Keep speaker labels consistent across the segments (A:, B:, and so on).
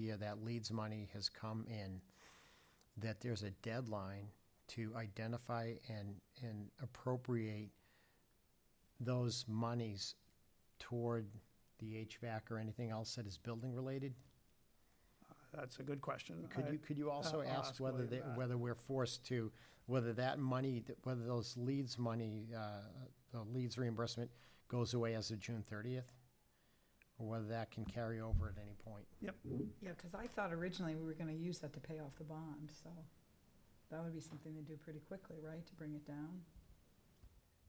A: year that Leeds money has come in, that there's a deadline to identify and, and appropriate those monies toward the HVAC or anything else that is building related?
B: That's a good question.
A: Could
B: I-
A: you, could you also
B: Uh, I'll
A: ask
B: ask
A: whether,
B: William
A: they-
B: that.
A: whether we're forced to, whether that money, whether those leads money, uh, the leads reimbursement goes away as of June thirtieth? Or whether that can carry over at any point?
B: Yep,
C: Yeah, because I thought originally we were going to use that to pay off the bond, so that would be something to do pretty quickly, right, to bring it down?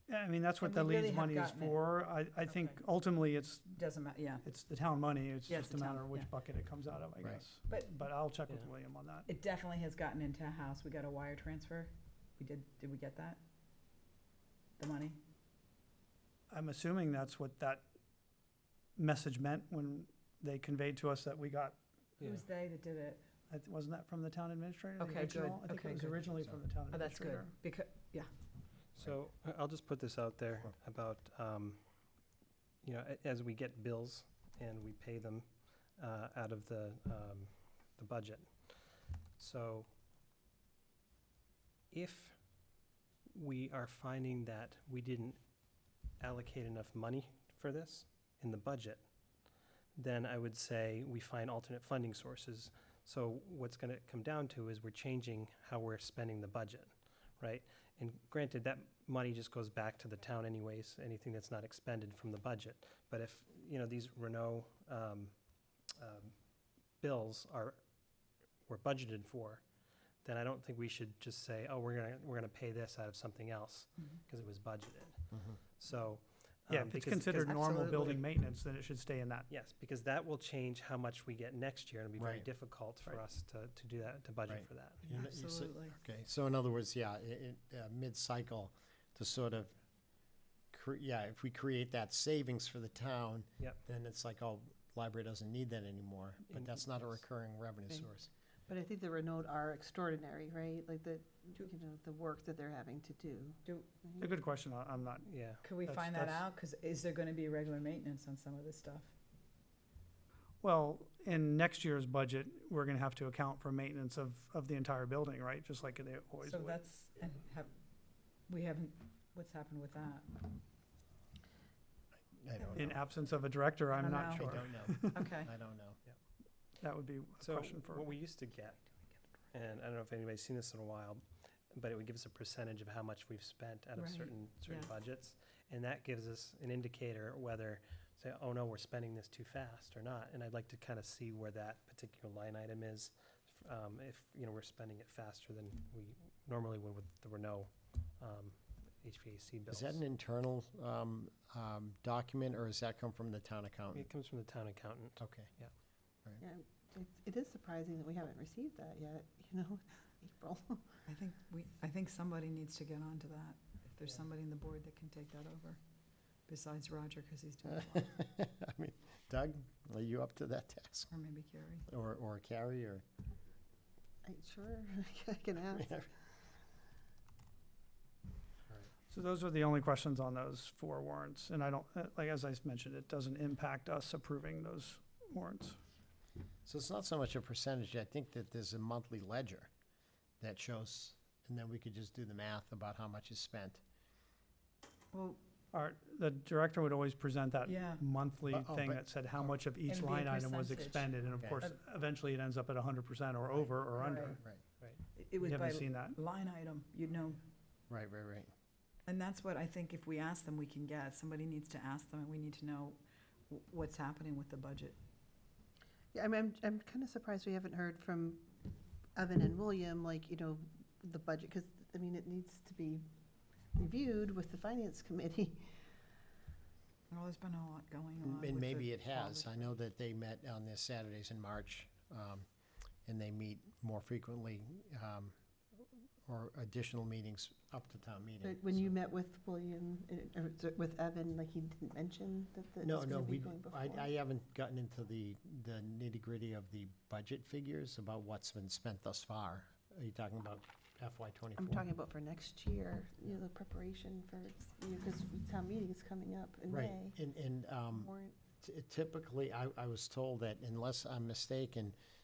B: Yeah, I mean, that's what
C: And
B: the
C: we really
B: leads
C: have
B: money is
C: gotten it.
B: for. I, I think
C: Okay.
B: ultimately it's,
C: Doesn't matter, yeah.
B: it's the town money, it's
C: Yeah, it's
B: just a
C: the
B: matter
C: town,
B: of
C: yeah.
B: which bucket it comes out of, I
A: Right.
B: guess.
C: But-
B: But I'll check with
D: Yeah.
B: William on that.
C: It definitely has gotten into a house. We got a wire transfer. We did, did we get that? The money?
B: I'm assuming that's what that message meant when they conveyed to us that we got,
C: It was they that did it.
B: I th- wasn't that from the town administrator? the
C: Okay, good.
B: original? I think it
C: Okay,
B: was
C: good.
B: originally from the town
C: Oh, that's
B: administrator.
C: good, because, yeah.
D: So I- I'll just put this out there
A: Sure.
D: about, um, you know, a- as we get bills and we pay them uh, out of the, um, the budget. So if we are finding that we didn't allocate enough money for this in the budget, then I would say we find alternate funding sources. So what's going to come down to is we're changing how we're spending the budget, right? And granted, that money just goes back to the town anyways, anything that's not expended from the budget. But if, you know, these Renault um, um, bills are, were budgeted for, then I don't think we should just say, oh, we're gonna, we're gonna pay this out of something else, because it was budgeted. So.
B: Yeah,
D: um,
B: if it's
D: because- because-
B: considered normal
C: Oh, Absolutely.
B: building maintenance, then it should stay in that.
D: Yes, because that will change how much we get next year, and it'll be very
A: Right.
D: difficult for
B: Right.
D: us to, to do that, to budget
A: Right.
D: for that.
A: You know, you say- Okay, so in other words, yeah, it, it, uh, mid-cycle to sort of, cre- yeah, if we create that savings for the town,
D: Yep.
A: then it's like, oh, library doesn't need that anymore, but
D: In-
A: that's not a
D: yes.
A: recurring revenue
E: Right.
A: source.
E: But I think the Renault are extraordinary, right? Like the, you know, the work that they're having to do.
C: Do,
B: It's a good question, I- I'm not,
D: Yeah.
C: could we
B: That's-
C: find that
B: that's-
C: out? Because is there going to be regular maintenance on some of this stuff?
B: well, in next year's budget, we're gonna have to account for maintenance of, of the entire building, right? Just like they always
C: So
B: would.
C: that's, and have, we haven't, what's happened with that?
A: I don't
B: In
A: know.
B: absence of a director, I'm
C: don't
B: not
A: I
C: know.
B: sure.
A: don't know.
C: Okay.
A: I don't know.
B: That would be a
D: So
B: question
D: what
B: for,
D: we used to get, and I don't know if anybody's seen this in a while, but it would give us a percentage of how much we've spent out of
C: Right,
D: certain, certain
C: yeah.
D: budgets. And that gives us an indicator whether, say, oh no, we're spending this too fast or not. And I'd like to kind of see where that particular line item is, f- um, if, you know, we're spending it faster than we normally would with the Renault, um, HVAC
A: Is
D: bills.
A: that an internal um, um, document, or does that come from the town accountant?
D: It comes from the town accountant.
A: Okay.
E: Yeah, it, it is surprising that we haven't received that yet, you know, April.
C: I think we, I think somebody needs to get on to that. If there's
D: Yeah.
C: somebody in the board that can take that over, besides Roger, because he's doing it,
A: I mean, Doug, are you up to that task?
C: or maybe Carrie.
A: Or, or Carrie, or?
E: I, sure, I can ask.
B: so those are the only questions on those four warrants. And I don't, uh, like, as I mentioned, it doesn't impact us approving those warrants.
A: So it's not so much a percentage, I think that there's a monthly ledger that shows, and then we could just do the math about how much is spent.
C: Well,
B: Our, the director would always present that
C: Yeah.
B: monthly
A: Uh, oh,
B: thing
A: but-
B: that said how much of
C: And
B: each
C: be a
B: line item was
C: percentage.
B: expended. And of
A: Okay.
B: course, eventually it ends up at hundred percent or over or under.
C: Right.
A: Right,
C: it- it
B: We
C: was
B: haven't seen
C: by
B: that.
C: line item, you'd know.
A: right, right, right.
C: And that's what I think if we ask them, we can get. Somebody needs to ask them, and we need to know w- what's happening with the budget.
E: Yeah, I'm, I'm, I'm kind of surprised we haven't heard from Evan and William, like, you know, the budget, because, I mean, it needs to be reviewed with the finance committee.
C: Well, there's been a lot going on.
A: And
C: with
A: maybe
C: the-
A: it has. I know that they met on their Saturdays in March, um, and they meet more frequently, um, or additional meetings up to town meeting.
E: But when you met with William, uh, or with Evan, like, he didn't mention that that
A: No,
E: it's
A: no,
E: going to be
A: we,
E: going before.
A: I, I haven't gotten into the, the nitty-gritty of the budget figures about what's been spent thus far. Are you talking about FY 24
E: I'm talking about for next year, you know, the preparation for, you know, because town meeting is coming up in May.
A: Right, and, and, um,
E: Warrant.
A: Ty- Typically, I, I was told that unless I'm mistaken,